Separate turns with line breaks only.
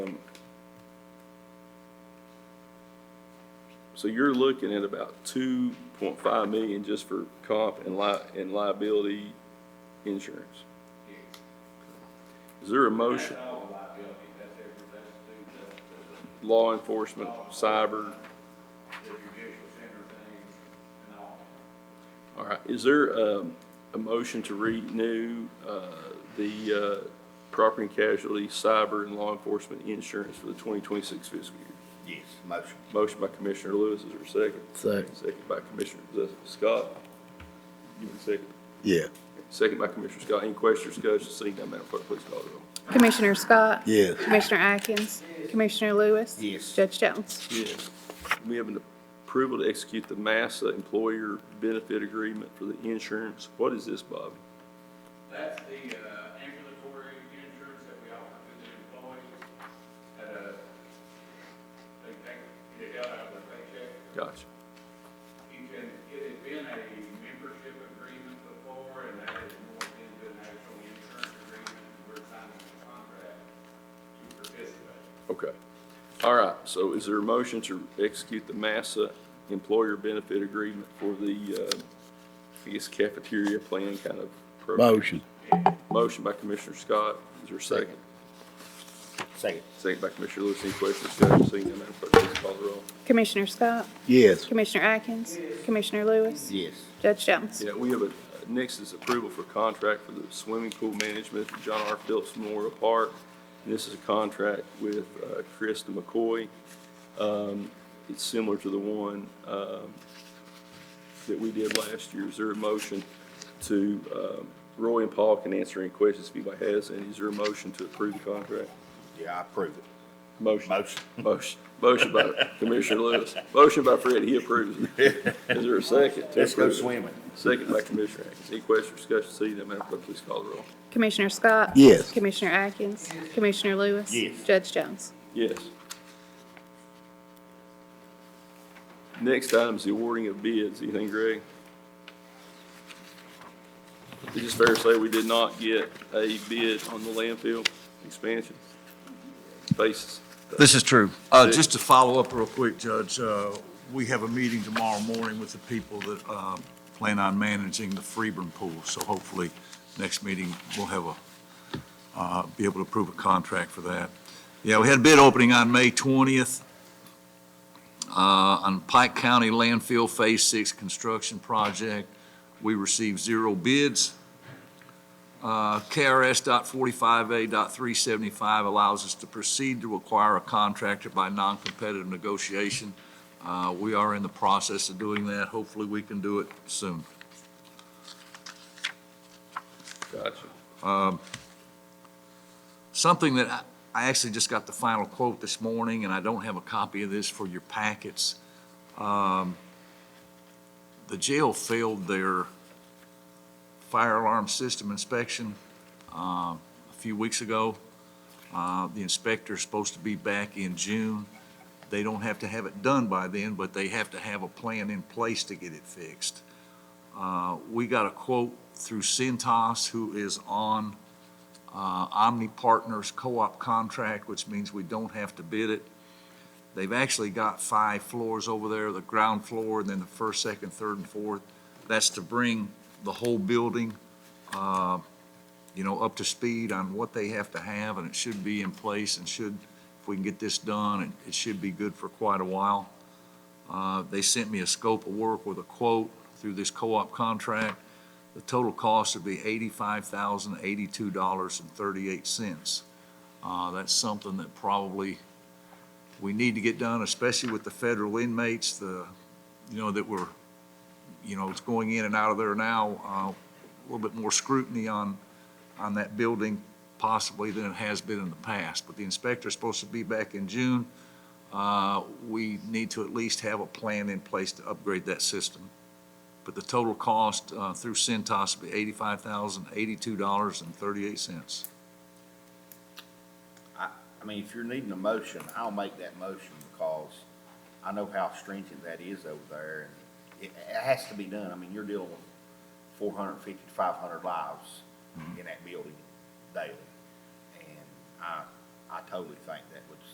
So you're looking at about two point five million just for comp and li- and liability insurance. Is there a motion? Law enforcement, cyber, all right, is there, um, a motion to renew, uh, the, uh, property and casualty, cyber and law enforcement insurance for the twenty twenty-six fiscal year?
Yes, motion.
Motion by Commissioner Lewis, is there a second?
Second.
Second by Commissioner Scott. Give me a second.
Yeah.
Second by Commissioner Scott. Any questions, discussion? Seeing none, Madam Clerk, please call the roll.
Commissioner Scott?
Yes.
Commissioner Atkins? Commissioner Lewis?
Yes.
Judge Jones?
Yes. We have an approval to execute the Massa Employer Benefit Agreement for the insurance. What is this, Bobby?
That's the uh, ambulatory insurance that we offer to the employees at a, they take it out of their paycheck.
Gotcha.
You can, it had been a membership agreement before, and that is more into an actual insurance agreement. We're signing a contract to participate.
Okay. All right. So is there a motion to execute the Massa Employer Benefit Agreement for the, uh, I guess cafeteria plan kind of program?
Motion.
Motion by Commissioner Scott. Is there a second?
Second.
Second by Commissioner Lewis. Any questions, discussion? Seeing none, Madam Clerk, please call the roll.
Commissioner Scott?
Yes.
Commissioner Atkins? Commissioner Lewis?
Yes.
Judge Jones?
Yeah, we have a, next is approval for contract for the swimming pool management, at John R. Phillips Memorial Park. This is a contract with uh, Krista McCoy. Um, It's similar to the one um, that we did last year. Is there a motion to, um, Roy and Paul can answer any questions if anybody has, and is there a motion to approve the contract?
Yeah, I approve it.
Motion.
Motion.
Motion, motion by Commissioner Lewis, motion by Fred, he approves. it. Is there a second? to
Let's go
approve it?
swimming.
Second by Commissioner Atkins. Any questions, discussion, seeing none, Madam Clerk, please call the roll.
Commissioner Scott?
Yes.
Commissioner Atkins? Commissioner Lewis?
Yes.
Judge Jones?
Yes. Next item is the awarding of bids. Anything, Greg? Is it fair to say we did not get a bid on the landfill expansion? Basis.
This is true. Uh, Just to follow up real quick, Judge, uh, we have a meeting tomorrow morning with the people that uh, plan on managing the Freeburn Pool. So hopefully, next meeting, we'll have a, uh, be able to approve a contract for that. Yeah, we had a bid opening on May 20th uh, on Pike County Landfill Phase 6 Construction Project. We received zero bids. Uh, KRS dot forty-five A dot three seventy-five allows us to proceed to acquire a contractor by non-competitive negotiation. Uh, We are in the process of doing that. Hopefully, we can do it soon.
Gotcha.
Something that I- I actually just got the final quote this morning, and I don't have a copy of this for your packets. Um, The jail failed their fire alarm system inspection uh, a few weeks ago. Uh, The inspector's supposed to be back in June. They don't have to have it done by then, but they have to have a plan in place to get it fixed. Uh, We got a quote through Centos, who is on uh, Omni Partners co-op contract, which means we don't have to bid it. They've actually got five floors over there, the ground floor, and then the first, second, third, and fourth. That's to bring the whole building, uh, you know, up to speed on what they have to have, and it should be in place and should, if we can get this done, it- it should be good for quite a while. Uh, They sent me a scope of work with a quote through this co-op contract. The total cost would be eighty-five thousand, eighty-two dollars and thirty-eight cents. Uh, that's something that probably we need to get done, especially with the federal inmates, the, you know, that were, you know, it's going in and out of there now, uh, a little bit more scrutiny on, on that building possibly than it has been in the past. But the inspector's supposed to be back in June. Uh, we need to at least have a plan in place to upgrade that system but the total cost uh, through Centos will be eighty-five thousand, eighty-two dollars and thirty-eight cents.
I mean, if you're needing a motion, I'll make that motion because I know how stringent that is over there. and It, it has to be done. I mean, you're dealing with 450 to 500 lives
Mm-hmm.
in that building daily. And I, I totally think that was